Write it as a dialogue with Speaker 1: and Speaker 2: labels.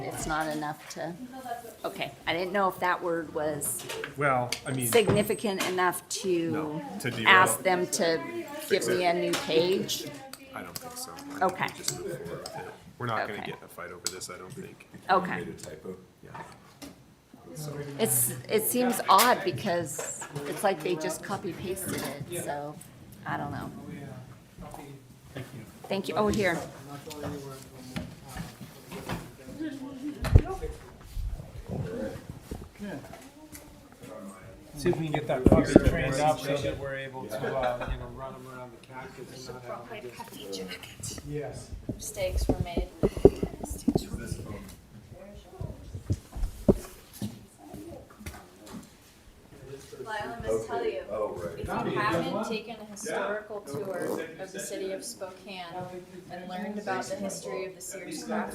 Speaker 1: that's not enough to, okay. I didn't know if that word was
Speaker 2: Well, I mean,
Speaker 1: significant enough to
Speaker 2: No, to derail.
Speaker 1: ask them to give me a new page.
Speaker 2: I don't think so. I think we
Speaker 1: Okay.
Speaker 2: just move forward with it. We're not gonna
Speaker 1: Okay.
Speaker 2: get in a fight over this, I don't think.
Speaker 1: Okay.
Speaker 2: typo? Yeah.
Speaker 1: It's, it seems odd because it's like they just copy pasted it, so I don't know. Thank you. Oh, here.
Speaker 3: See if we can get that puppy trained up so that we're able to, uh, you know, run them around the cactus and not have them just. Yes.
Speaker 4: mistakes were made. Lyle, I must tell you, if you haven't taken a historical tour of the city of Spokane and learned about the history of the Sears craft